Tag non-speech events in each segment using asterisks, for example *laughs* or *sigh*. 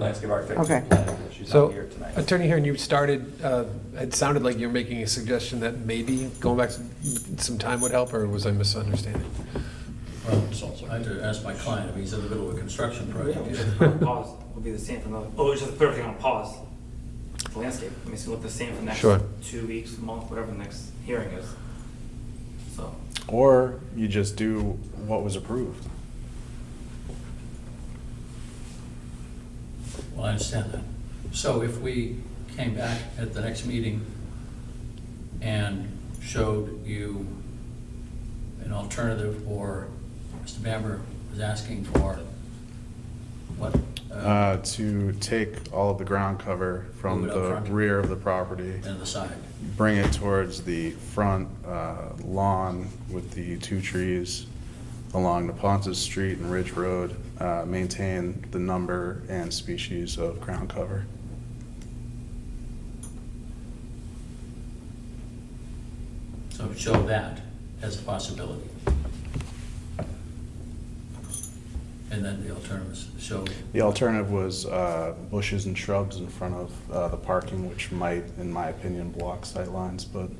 landscape architect. uh, Okay. She's not So, here tonight. Attorney Heron, you started, uh, it sounded like you're making a suggestion that maybe going back some time would help, or was I misunderstanding? Well, I had to ask my client, I mean, he's in the middle of a construction project. Yeah, *laughs* just put it on pause, will be the same for another, oh, just put everything on pause. The landscape, I mean, it's gonna look the same for the next Sure. two weeks, month, whatever the next hearing is. So, Or you just do what was approved. Well, I understand that. So if we came back at the next meeting and showed you an alternative, or Mr. Bamber was asking for, what? Uh, to take all of the ground cover from Move it up the front. rear of the property, And the side. bring it towards the front uh, lawn with the two trees along the Ponces Street and Ridge Road, uh, maintain the number and species of ground cover. So show that as a possibility. And then the alternatives, show The alternative was uh, bushes and shrubs in front of uh, the parking, which might, in my opinion, block sightlines, but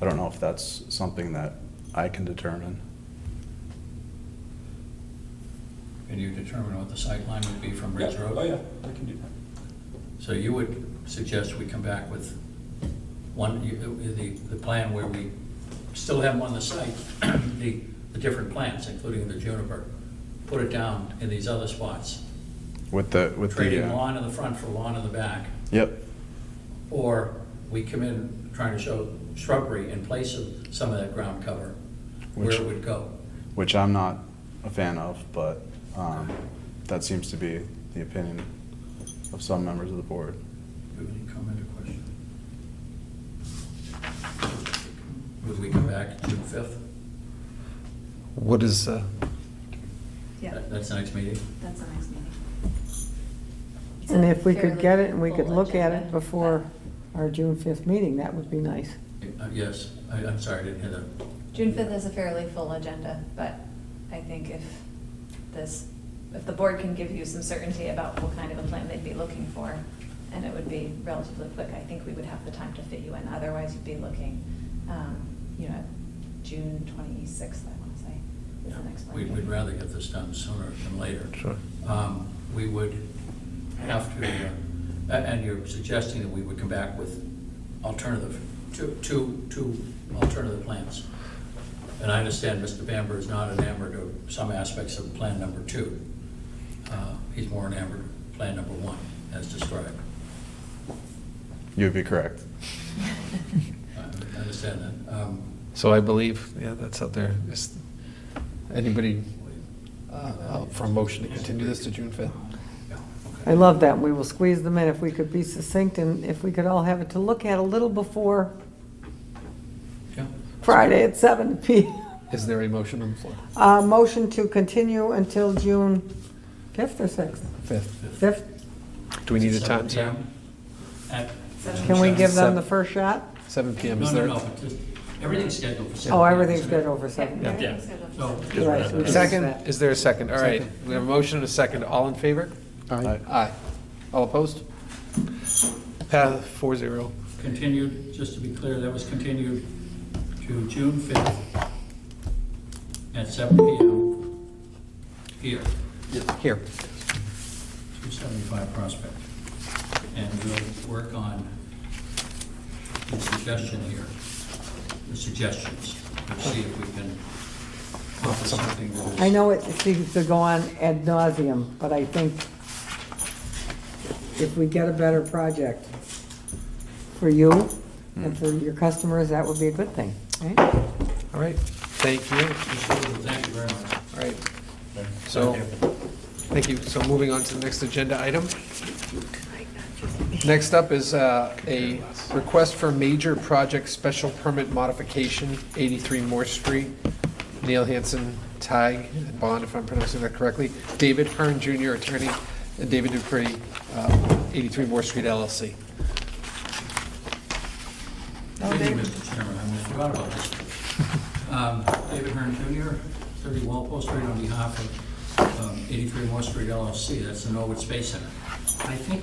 I don't know if that's something that I can determine. Can you determine what the sight line would be from Yeah, Ridge Road? oh yeah, we can do that. So you would suggest we come back with one, you- the, the plan where we still have them on the site, *clears throat* the, the different plants, including the juniper, put it down in these other spots, With the, with the. trading uh, lawn in the front for lawn in the back, Yep, or we come in trying to show shrubbery in place of some of that ground cover, where Which- it would go. which I'm not a fan of, but um, that seems to be the opinion of some members of the board. Do you have any comment or question? Would we come back June fifth? What is, uh, Yeah, That's the next meeting? that's the next meeting. It's And a if we could fairly get it and we could full look at it agenda, before our June 5th meeting, that would be nice. Uh, Yes, I, I'm sorry, I didn't hear that. but June fifth is a fairly full agenda, but I think if this, if the board can give you some certainty about what kind of a plan they'd be looking for, and it would be relatively quick, I think we would have the time to fit you in, otherwise you'd be looking, um, you know, June twenty-sixth, I wanna say, is the next one. We'd, we'd rather get this done sooner than later. Sure. Um, We would have to, uh, a- and you're suggesting that we would come back with alternative, two, two, two alternative plans. And I understand Mr. Bamber is not enamored of some aspects of Plan Number Two. Uh, He's more enamored of Plan Number One, as described. You'd be correct. I I understand that. Um, so I believe, yeah, that's out there. Is anybody uh, up for a motion to continue this to June 5th? yeah, okay. I love that. We will squeeze them in if we could be succinct and if we could all have it to look at a little before Yeah. Friday at seven *laughs* PM. Is there a motion on the floor? Uh, Motion to continue until June 5th or 6th? 5th. 5th? Do we need a Seven time, Sarah? PM at- Can we give them Seven. the first shot? 7 PM, No, is no, there? no, but just, everything's scheduled for seven. Oh, PM, everything's isn't it? good over seven. Yeah. Yeah. scheduled for So- September. Just Right, we wrap it can up. Second, is there a second? All right, we have a motion and a second. All in favor? Aye. Aye. All opposed? Pass four zero. Continued, just to be clear, that was continued to June 5th at seven PM here, Here. 275 Prospect. And we'll work on the suggestion here, the suggestions, and see if we can offer something. that is- I know it seems to go on ad nauseum, but I think if we get a better project for you and for your customers, that would be a good thing, right? All right, thank you. Thank you very much. All right, so, thank you. So moving on to the next agenda item. Next up is uh, a request for major project special permit modification, 83 Moore Street. Neil Hanson, Tig, and Bond, if I'm pronouncing that correctly. David Hearn Jr., attorney, and David Dupree, uh, 83 Moore Street LLC. Thank you, Mr. Chairman, I almost forgot about this. Um, David Hearn Jr., 30 Walpole Street, on behalf of um, 83 Moore Street LLC, that's the Norwood Space Center. I think